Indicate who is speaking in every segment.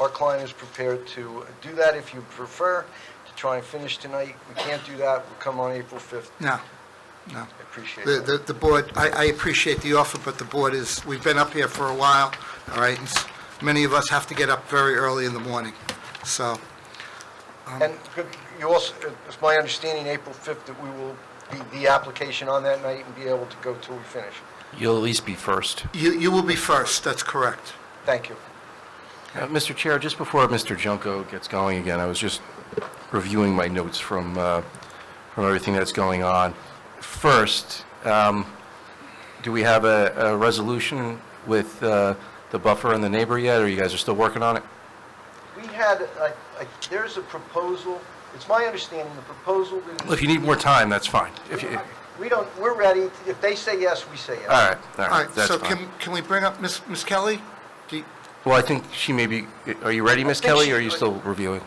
Speaker 1: Our client is prepared to do that if you prefer, to try and finish tonight. We can't do that, we'll come on April 5th.
Speaker 2: No, no.
Speaker 1: I appreciate
Speaker 2: The,
Speaker 1: that.
Speaker 2: the, the board, I, I appreciate the offer, but the board is, we've been up here for a while, all right? and s- Many of us have to get up very early in the morning, so,
Speaker 1: And could you also, it's my understanding, April 5th, that we will be the application on that night and be able to go till we finish.
Speaker 3: You'll at least be first.
Speaker 2: you, you will be first, that's correct.
Speaker 1: Thank you.
Speaker 3: Uh, Mr. Chair, just before Mr. Junko gets going again, I was just reviewing my notes from, uh, from everything that's going on. First, um, do we have a, a resolution with uh, the buffer and the neighbor yet, or you guys are still working on it?
Speaker 1: We had, a- a- there's a proposal, it's my understanding, the proposal is,
Speaker 3: Well, If you need more time, that's fine. If you,
Speaker 1: we don't, we're ready, if they say yes, we say yes.
Speaker 3: all right, all
Speaker 2: All
Speaker 3: right,
Speaker 2: right,
Speaker 3: that's
Speaker 2: so
Speaker 3: fine.
Speaker 2: can, can we bring up Ms. Ms. Kelly? Do you-
Speaker 3: Well, I think she may be, are you ready, Ms.
Speaker 1: think
Speaker 3: Kelly,
Speaker 1: she-
Speaker 3: or are you still reviewing?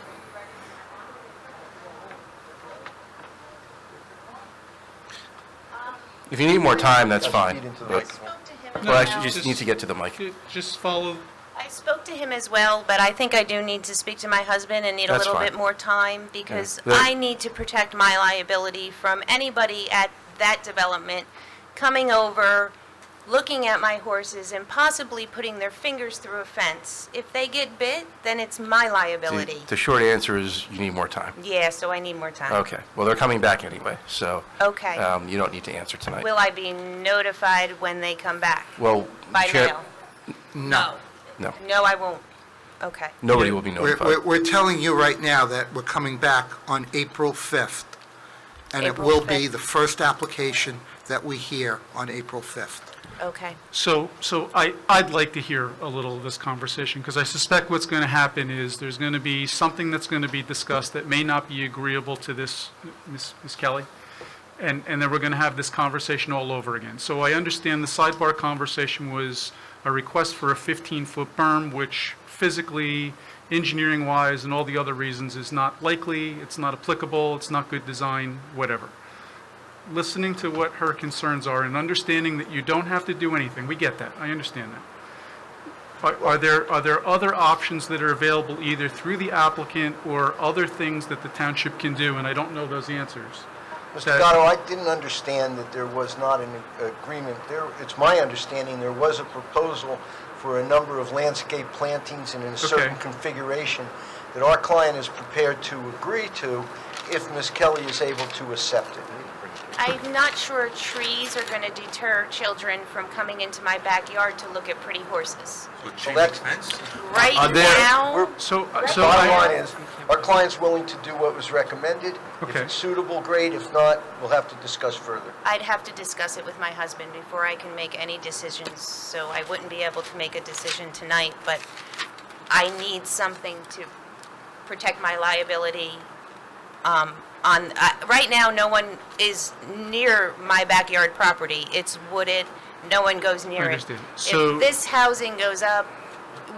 Speaker 3: If you need more time, that's fine.
Speaker 1: Feed into the
Speaker 3: But-
Speaker 1: microphone.
Speaker 4: spoke to him as
Speaker 3: Well,
Speaker 4: well.
Speaker 3: actually, you just need to get to the mic.
Speaker 5: Ju- Just follow,
Speaker 4: I spoke to him as well, but I think I do need to speak to my husband and need a
Speaker 3: That's
Speaker 4: little
Speaker 3: fine.
Speaker 4: bit more time because
Speaker 3: Yeah.
Speaker 4: I need to protect my liability from anybody at that development coming over, looking at my horses and possibly putting their fingers through a fence. If they get bit, then it's my liability.
Speaker 3: The the short answer is you need more time.
Speaker 4: Yeah, so I need more time.
Speaker 3: Okay, well, they're coming back anyway, so.
Speaker 4: Okay.
Speaker 3: um, You don't need to answer tonight.
Speaker 4: Will I be notified when they come back?
Speaker 3: Well,
Speaker 4: By
Speaker 3: Chair-
Speaker 4: mail?
Speaker 2: No.
Speaker 3: No,
Speaker 4: No, I won't. Okay.
Speaker 3: nobody will be
Speaker 2: We're,
Speaker 3: notified.
Speaker 2: we're, we're telling you right now that we're coming back on April 5th, and it
Speaker 4: April
Speaker 2: will be
Speaker 4: 5th.
Speaker 2: the first application that we hear on April 5th.
Speaker 4: Okay.
Speaker 5: so, so I, I'd like to hear a little of this conversation, because I suspect what's going to happen is there's going to be something that's going to be discussed that may not be agreeable to this, Ms. Ms. Kelly, and, and then we're going to have this conversation all over again. So I understand the sidebar conversation was a request for a 15-foot berm, which physically, engineering-wise, and all the other reasons is not likely, it's not applicable, it's not good design, whatever. listening to what her concerns are and understanding that you don't have to do anything. We get that. I understand that. Are, are there, are there other options that are available either through the applicant or other things that the township can do? And I don't know those answers.
Speaker 1: Mr.
Speaker 5: that-
Speaker 1: Gatto, I didn't understand that there was not an agreement. There, it's my understanding there was a proposal for a number of landscape plantings and in a certain
Speaker 5: Okay.
Speaker 1: configuration that our client is prepared to agree to if Ms. Kelly is able to accept it.
Speaker 4: I'm not sure trees are going to deter children from coming into my backyard to look at pretty horses.
Speaker 1: So that's,
Speaker 4: Right
Speaker 3: Are there-
Speaker 4: now,
Speaker 1: we're,
Speaker 5: So, uh, so
Speaker 1: bottom line
Speaker 5: I,
Speaker 1: is, our client's willing to do what was recommended. If
Speaker 5: Okay.
Speaker 1: it's suitable, great. If not, we'll have to discuss further.
Speaker 4: I'd have to discuss it with my husband before I can make any decisions, so I wouldn't be able to make a decision tonight, but I need something to protect my liability. um, On, I- right now, no one is near my backyard property. It's wooded, no one goes near it.
Speaker 5: understand. So-
Speaker 4: If this housing goes up,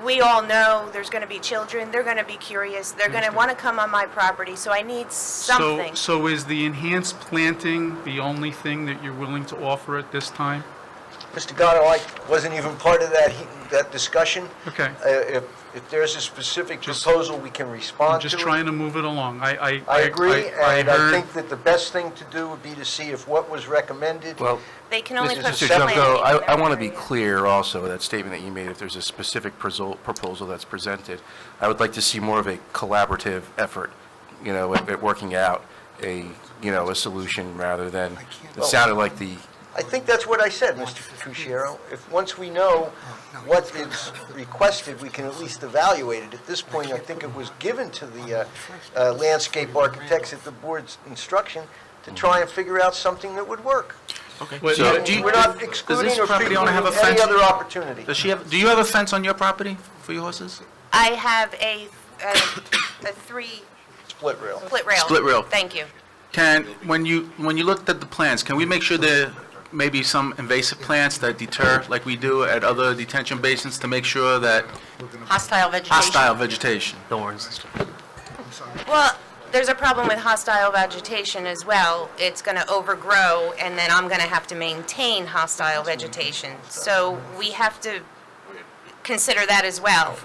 Speaker 4: we all know there's going to be children, they're going to be curious, they're going to want to come on my property, so I need
Speaker 5: so,
Speaker 4: something.
Speaker 5: so is the enhanced planting the only thing that you're willing to offer at this time?
Speaker 1: Mr. Gatto, I wasn't even part of that, he- that discussion.
Speaker 5: Okay.
Speaker 1: Uh, If, if there's a specific proposal, we can
Speaker 5: I'm
Speaker 1: respond to it.
Speaker 5: just trying to move it along. I, I.
Speaker 1: I agree, and I
Speaker 5: heard-
Speaker 1: think that the best thing to do would be to see if what was recommended,
Speaker 3: Well,
Speaker 4: They can only put
Speaker 3: Mr.
Speaker 4: the
Speaker 1: Junko,
Speaker 3: Junko,
Speaker 4: planting
Speaker 3: I,
Speaker 4: in
Speaker 3: I
Speaker 4: their
Speaker 3: want to be
Speaker 4: area.
Speaker 3: clear also, that statement that you made, if there's a specific proso- proposal that's presented, I would like to see more of a collaborative effort, you know, at, at working out a, you know, a solution rather than, it sounded like the,
Speaker 1: I think that's what I said, Mr. Cucchiaro. If, once we know what is requested, we can at least evaluate it. At this point, I think it was given to the uh, uh, landscape architects at the board's instruction to try and figure out something that would work.
Speaker 6: Wait,
Speaker 3: So-
Speaker 6: do you-
Speaker 1: We're not
Speaker 6: does-
Speaker 1: excluding
Speaker 6: Does
Speaker 1: or
Speaker 6: this property owner have a
Speaker 1: precluding any
Speaker 6: fence?
Speaker 1: other opportunity.
Speaker 6: Does she have, do you have a fence on your property for your horses?
Speaker 4: I have a, a, a three
Speaker 1: Split rail.
Speaker 4: split rail.
Speaker 6: Split rail.
Speaker 4: Thank you.
Speaker 6: Can, when you, when you looked at the plants, can we make sure there may be some invasive plants that deter, like we do at other detention basins, to make sure that
Speaker 7: Hostile vegetation.
Speaker 6: hostile vegetation?
Speaker 4: Well, there's a problem with hostile vegetation as well. It's going to overgrow, and then I'm going to have to maintain hostile vegetation. So we have to consider that as well.